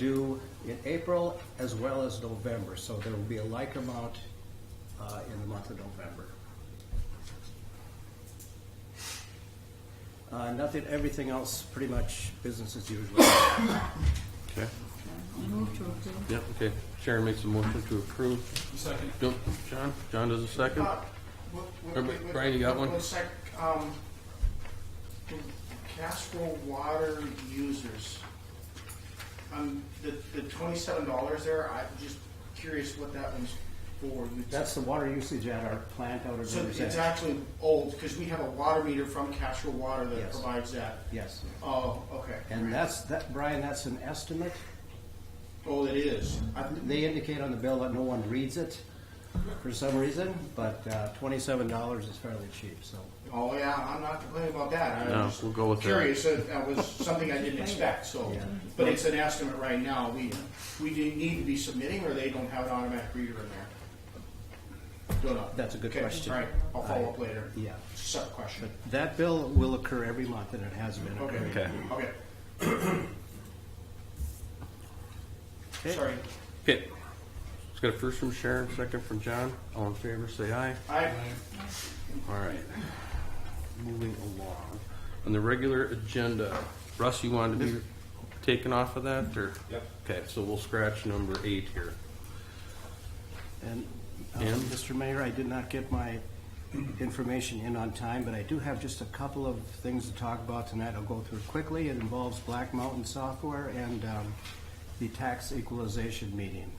due in April as well as November, so there will be a like amount uh, in the month of November. Uh, Nothing, everything else, pretty much business as usual. Okay, Move to approve. yeah, okay. Sharon makes a motion to approve. Second. No, John, John does a second. Uh, what- what- Or, what- Brian, you got what- one? One sec, um, Castro water users, um, the, the twenty-seven dollars there, I'm just curious what that one's for. You- That's the water usage at our plant out of So Riverside. it's actually old, because we have a water meter from Castro Water that Yes. provides that. Yes, Oh, okay. and that's, that, Brian, that's an estimate. Oh, it is. I- They indicate on the bill that no one reads it for some reason, but uh, twenty-seven dollars is fairly cheap, so. Oh, yeah, I'm not complaining about that. No, I'm just we'll go with that. curious. That. that was something I didn't expect. So, Yeah. but it's an estimate right now. We we do need to be submitting, or they don't have an automatic reader in there. Don't know. That's a good Okay, question. All right, I'll follow up later. Yeah. Separate question. But that bill will occur every month, and it has been Okay. occurring. Okay. Okay. Okay. Sorry. Okay. Let's get a first from Sharon, second from John. All in favor, say aye. I All right. Moving along. On the regular agenda, Russ, you wanted to be taken off of that, or? Yep. Okay, so we'll scratch number eight here. And, um, And? Mr. Mayor, I did not get my information in on time, but I do have just a couple of things to talk about tonight. I'll go through quickly. It involves Black Mountain Software and um, the tax equalization meeting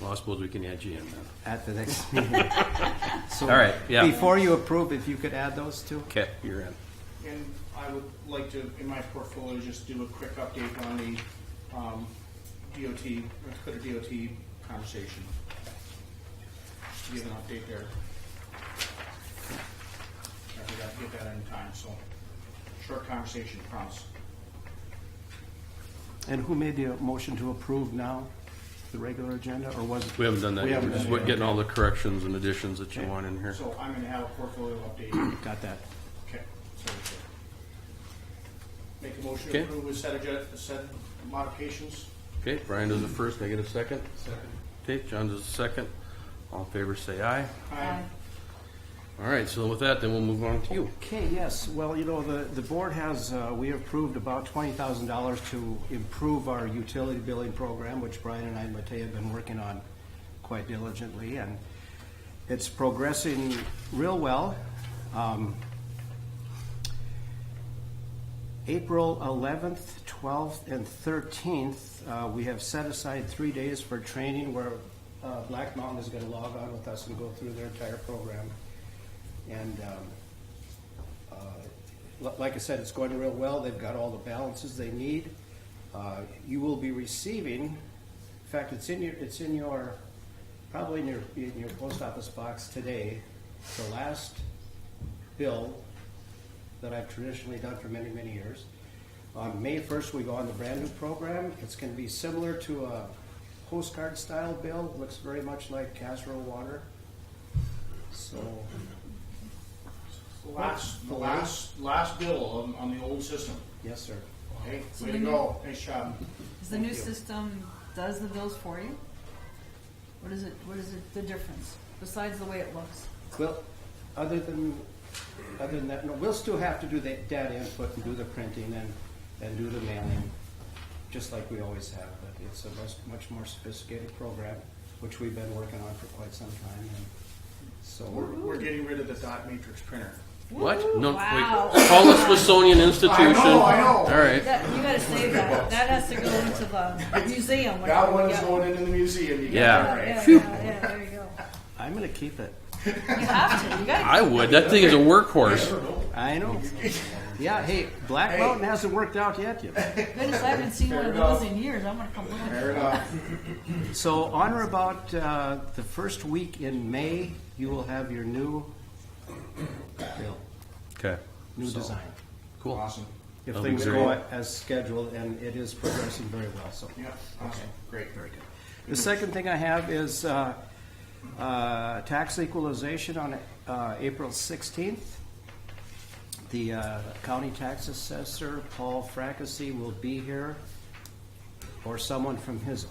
Well, I suppose we can add you in then. at the next meeting. So All right, yeah. Before you approve, if you could add those two? Okay, you're in. and I would like to, in my portfolio, just do a quick update on the um, DOT, North Dakota DOT conversation. Just to give an update there. I forgot to get that in time, so short conversation, promise. And who made the motion to approve now, the regular agenda, or was it? We haven't done that We yet. We're haven't just done it getting all the corrections and additions that you Okay. want in here. So I'm gonna have a portfolio update. yet. Got that. Okay. so we should Make a motion Okay. to approve with set adjust, set modifications. Okay, Brian does the first, I get a second? Second. Okay, John does the second. All in favor, say aye. Aye. All right, so with that, then we'll move on to you. Okay, yes, well, you know, the, the board has, uh, we approved about twenty thousand dollars to improve our utility billing program, which Brian and I and Matei have been working on quite diligently, and it's progressing real well. Um, April eleventh, twelfth, and thirteenth, uh, we have set aside three days for training where, uh, Black Mountain is gonna log on with us and go through their entire program. And, um, uh, li- Like I said, it's going real well. They've got all the balances they need. Uh, You will be receiving, in fact, it's in your, it's in your, probably in your, in your post office box today, the last bill that I've traditionally done for many, many years. On May first, we go on the brand-new program. It's gonna be similar to a postcard-style bill, looks very much like casserole water. So, The last, the last, last bill on, on the old system. yes, sir. Hey, So way to then you- go. Nice job. Is the new Thank you. system, does the bills for you? What is it, what is it, the difference, besides the way it looks? Well, other than, other than that, no, we'll still have to do the data input and do the printing and, and do the mailing, just like we always have, but it's a much, much more sophisticated program, which we've been working on for quite some time, and so We're, we're, we're getting rid of the dot matrix printer. What? No, Wow. wait. Call this Wissonian Institution. I know, Oh, I know. All right. That, you gotta save that, that has to go into the museum. when That you- one is yeah. going into the museum. You Yeah. got Yeah, that right. yeah, yeah, yeah, there you go. I'm gonna keep it. You have to, you gotta. I would. That thing is a workhorse. I know. Yeah, hey, Black Hey. Mountain hasn't worked out yet, you know. Goodness, I haven't seen one of Fair enough. those in years, I'm gonna come look. Fair enough. So on or about uh, the first week in May, you will have your new bill, Okay. new design. Cool. Awesome. if That'll be things great. go as scheduled, and it is progressing very well, so. Yeah. Awesome. Great. Very good. The second thing I have is uh, uh, tax equalization on uh, April 16th. The uh, county tax assessor, Paul Fracassi, will be here or someone from his